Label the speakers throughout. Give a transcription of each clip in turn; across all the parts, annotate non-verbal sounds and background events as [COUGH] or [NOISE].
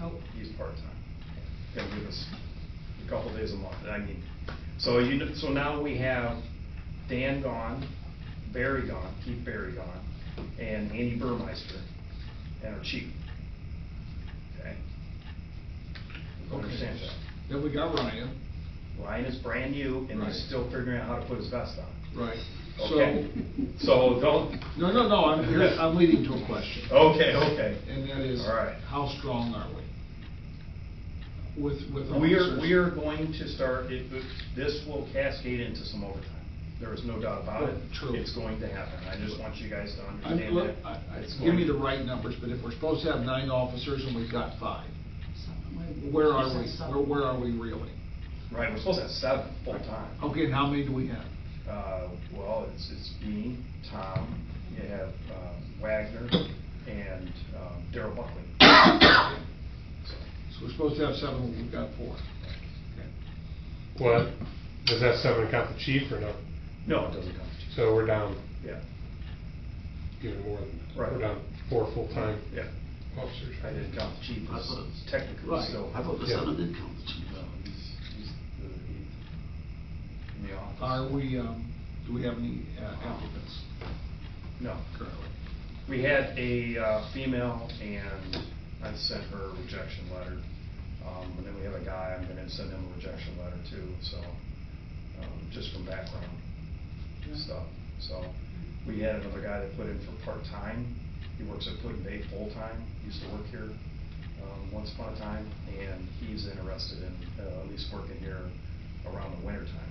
Speaker 1: Oh.
Speaker 2: He's part-time. Gonna give us a couple days a month, I mean, so you, kn- so now we have Dan gone, Barry gone, Keith Barry gone, and Andy Burmeister, and our chief. Okay? I Understand that.
Speaker 3: Then we got Ryan,
Speaker 2: Ryan is brand new, and
Speaker 3: Right.
Speaker 2: he's still figuring out how to put his vest on.
Speaker 3: right, so,
Speaker 2: Okay? So don't,
Speaker 3: no, no, no, I'm,
Speaker 2: [LAUGHS]
Speaker 3: here- I'm leading to a question.
Speaker 2: okay, okay.
Speaker 3: And that is,
Speaker 2: All right.
Speaker 3: how strong are we? With, with
Speaker 2: We are,
Speaker 3: officers?
Speaker 2: we are going to start, it- this will cascade into some overtime. There is no doubt about it.
Speaker 3: Oh, True.
Speaker 2: It's going to happen. I just want you guys to
Speaker 3: I'm-
Speaker 2: understand
Speaker 3: look,
Speaker 2: that.
Speaker 3: I- I-
Speaker 2: It's
Speaker 3: Give me
Speaker 2: going-
Speaker 3: the right numbers, but if we're supposed to have nine officers and we've got five, where are we, where, where are we really?
Speaker 2: Right, we're supposed to have seven full-time.
Speaker 3: Okay, and how many do we have?
Speaker 2: Uh, well, it's, it's me, Tom, you have um, Wagner, and um, Daryl Buckley. So,
Speaker 3: So we're supposed to have seven, we've got four. Okay.
Speaker 4: Well, does that seven count the chief or no?
Speaker 2: No, it doesn't come to
Speaker 4: So we're down
Speaker 2: you. Yeah,
Speaker 4: even more than,
Speaker 2: Right.
Speaker 4: we're down four full-time
Speaker 2: yeah.
Speaker 4: officers.
Speaker 2: I didn't count the chief,
Speaker 5: I
Speaker 2: as
Speaker 5: thought it was-
Speaker 2: technically
Speaker 3: Right.
Speaker 2: still.
Speaker 5: I thought the
Speaker 4: Yeah.
Speaker 5: seven did count the chief.
Speaker 2: No, he's, he's the eighth in the office.
Speaker 3: Are we, um, do we have any uh, applicants
Speaker 2: No.
Speaker 3: currently?
Speaker 2: We had a uh, female and I sent her a rejection letter. Um, and then we have a guy, I'm gonna send him a rejection letter too, so, um, just from background stuff. So, we had another guy that put in for part-time. He works at Putin Bay full-time, used to work here, um, once upon a time. And he's interested in, uh, at least working here around the winter time,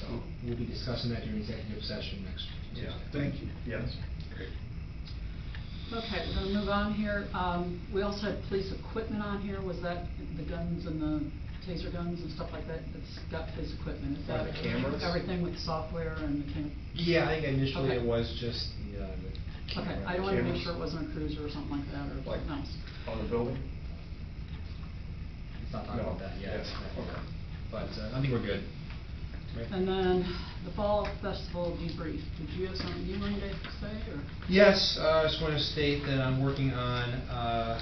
Speaker 2: so.
Speaker 6: We'll be discussing that during executive session next Tuesday.
Speaker 2: Yeah.
Speaker 3: Thank you.
Speaker 2: Yes.
Speaker 1: Okay, we're gonna move on here. Um, we also had police equipment on here. Was that the guns and the taser guns and stuff like that? It's got police equipment. Is
Speaker 2: Like
Speaker 1: that
Speaker 2: the cameras?
Speaker 1: everything with software and the cam?
Speaker 6: Yeah, I think initially it
Speaker 1: Okay.
Speaker 6: was just the, uh, the
Speaker 1: Okay,
Speaker 6: camera.
Speaker 1: I wanted to
Speaker 2: Cameras.
Speaker 1: make sure it wasn't a cruiser or something like that or
Speaker 2: Like-
Speaker 1: something else.
Speaker 2: On the building?
Speaker 6: Let's not talk about that
Speaker 2: Yeah,
Speaker 6: yet.
Speaker 2: okay.
Speaker 6: But uh, I think we're good. Right?
Speaker 1: And then the fall festival debrief. Did you have something you wanted to say or?
Speaker 6: Yes, uh, I just want to state that I'm working on, uh,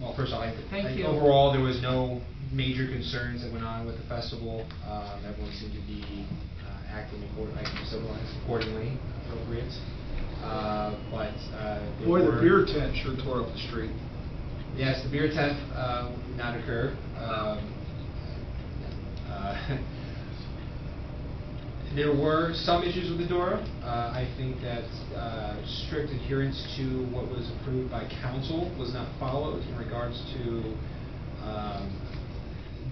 Speaker 6: well, first of all, I-
Speaker 1: Thank
Speaker 6: I-
Speaker 1: you.
Speaker 6: overall, there was no major concerns that went on with the festival. Um, Everyone seemed to be uh, acting according- like, civilized accordingly, appropriate. Uh, But. uh, there
Speaker 3: Boy, the
Speaker 6: were-
Speaker 3: beer tent sure tore up the street.
Speaker 6: Yes, the beer tent uh, did not occur. Um, uh, [LAUGHS] There were some issues with the DORA. Uh, I think that uh, strict adherence to what was approved by council was not followed in regards to um,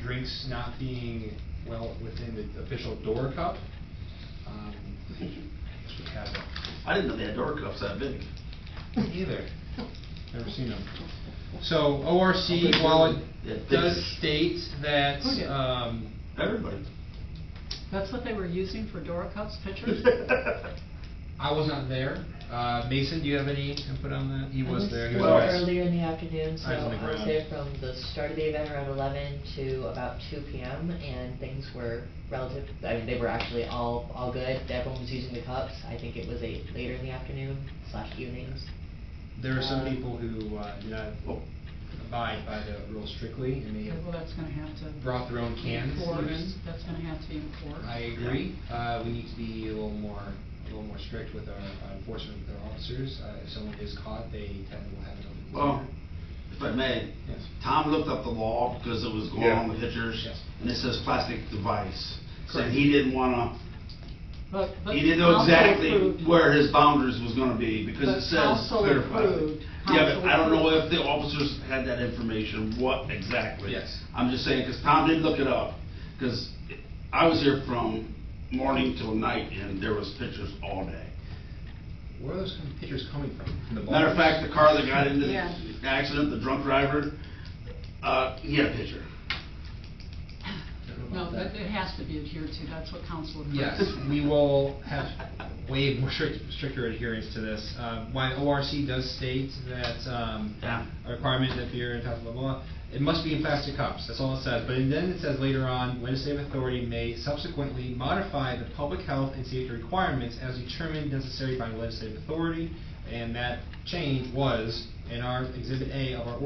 Speaker 6: drinks not being well within the official DORA cup. Um, I guess we have a
Speaker 5: I didn't know they had door cuffs that big.
Speaker 6: me either. Never seen them. So ORC,
Speaker 3: Okay,
Speaker 6: while
Speaker 5: yeah,
Speaker 6: it
Speaker 5: pictures.
Speaker 6: does state that,
Speaker 1: Oh, yeah.
Speaker 6: um,
Speaker 5: Everybody.
Speaker 1: That's what they were using for Dora Cups [LAUGHS]
Speaker 5: [LAUGHS]
Speaker 1: pictures?
Speaker 6: I was not there. Uh, Mason, do you have any input on that? He was there. He was
Speaker 7: Well,
Speaker 6: there.
Speaker 7: earlier in the afternoon, so
Speaker 6: I was on the
Speaker 7: I was
Speaker 6: ground.
Speaker 7: there from the start of the event around eleven to about two P M. And things were relative, I mean, they were actually all, all good. Everyone was using the cups. I think it was a later in the afternoon slash evenings.
Speaker 6: There are some
Speaker 7: Uh,
Speaker 6: people who uh, do not
Speaker 5: Oh.
Speaker 6: abide by the rules strictly and
Speaker 1: Okay, Well,
Speaker 6: they
Speaker 1: that's gonna have to.
Speaker 6: brought their own cans even.
Speaker 1: Enforced. That's gonna have to be enforced.
Speaker 6: I agree. Uh, we need to be a little more, a little more strict with our uh, enforcement with our officers. Uh, if someone is caught, they tend to have an open.
Speaker 5: Well, if I may,
Speaker 6: Yes.
Speaker 5: Tom looked up the law because it was going
Speaker 4: Yeah.
Speaker 5: on the pictures,
Speaker 6: Yes.
Speaker 5: and it says plastic device. So
Speaker 6: Correct.
Speaker 5: he didn't wanna,
Speaker 1: But- but
Speaker 5: he didn't know
Speaker 1: council
Speaker 5: exactly
Speaker 1: approved.
Speaker 5: where his boundaries was gonna be because
Speaker 1: But
Speaker 5: it says
Speaker 1: council
Speaker 5: clear plastic.
Speaker 1: approved.
Speaker 5: Yeah, but I don't know
Speaker 1: Council
Speaker 5: if the officers had that information, what exactly.
Speaker 6: Yes.
Speaker 5: I'm just saying, because Tom did look it up, because I was here from morning till night and there was pictures all day.
Speaker 6: Where are those kind of pictures coming from? From the
Speaker 5: Matter of
Speaker 6: bars?
Speaker 5: fact, the car that got into
Speaker 1: Yeah.
Speaker 5: the accident, the drunk driver, uh, he had a picture.
Speaker 6: I don't know
Speaker 1: No,
Speaker 6: about
Speaker 1: but
Speaker 6: that.
Speaker 1: it has to be adhered to, that's what council approved.
Speaker 6: Yes, we will have way more strict- stricter adherence to this. Um, While ORC does state that um,
Speaker 5: Yeah.
Speaker 6: a requirement that beer and blah, blah, blah, it must be in plastic cups, that's all it says. But then it says later on, legislative authority may subsequently modify the public health and safety requirements as determined necessary by legislative authority. And that change was in our Exhibit A of our